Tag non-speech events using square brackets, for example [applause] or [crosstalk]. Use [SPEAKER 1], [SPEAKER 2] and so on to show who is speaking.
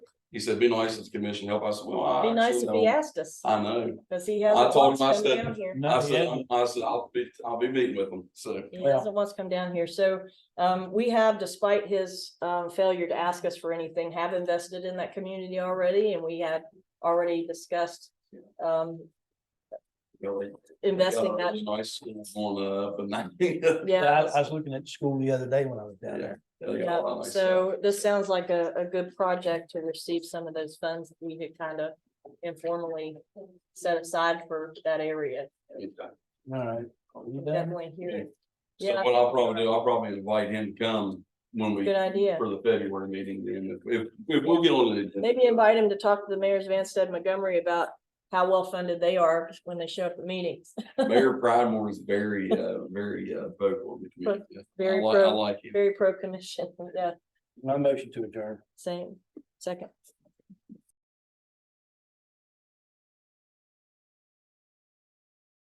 [SPEAKER 1] He said, be nice to the commission, help. I said, well, I.
[SPEAKER 2] Be nice
[SPEAKER 1] actually
[SPEAKER 2] if he
[SPEAKER 1] don't-
[SPEAKER 2] asked us,
[SPEAKER 1] I know.
[SPEAKER 2] cause he
[SPEAKER 1] I
[SPEAKER 2] hasn't
[SPEAKER 1] told
[SPEAKER 2] once
[SPEAKER 1] him I
[SPEAKER 2] come
[SPEAKER 1] said-
[SPEAKER 2] down here.
[SPEAKER 1] I
[SPEAKER 3] No, he
[SPEAKER 1] said,
[SPEAKER 3] hasn't.
[SPEAKER 1] I said, I'll be, I'll be meeting with them. So
[SPEAKER 2] He
[SPEAKER 3] Well-
[SPEAKER 2] hasn't once come down here, so um we have, despite his um failure to ask us for anything, have invested in that community already, and we had already discussed um
[SPEAKER 1] really.
[SPEAKER 2] investing
[SPEAKER 1] Yeah,
[SPEAKER 2] that,
[SPEAKER 1] it's Nice school on, [laughs] uh, but not.
[SPEAKER 3] Yeah,
[SPEAKER 2] yeah.
[SPEAKER 3] I, I was looking at school the other day when I was down there.
[SPEAKER 2] Yeah, so this sounds like a a good project to receive some of those funds that we could kind of informally set aside for that area.
[SPEAKER 3] All right. Are you done?
[SPEAKER 2] Definitely here,
[SPEAKER 1] So
[SPEAKER 2] Yeah.
[SPEAKER 1] what I'll probably do, I'll probably invite him to come when we,
[SPEAKER 2] good idea.
[SPEAKER 1] for the February meeting, then if, if we'll get on it.
[SPEAKER 2] [laughs] Maybe invite him to talk to the mayors of Anstead Montgomery about how well funded they are when they show up at meetings. [laughs]
[SPEAKER 1] Mayor Pridemore is very, uh, very, uh, vocal. in the community. I
[SPEAKER 2] Very
[SPEAKER 1] like, I
[SPEAKER 2] pro,
[SPEAKER 1] like him.
[SPEAKER 2] very pro commission, yeah,
[SPEAKER 3] No motion to adjourn.
[SPEAKER 2] same, second.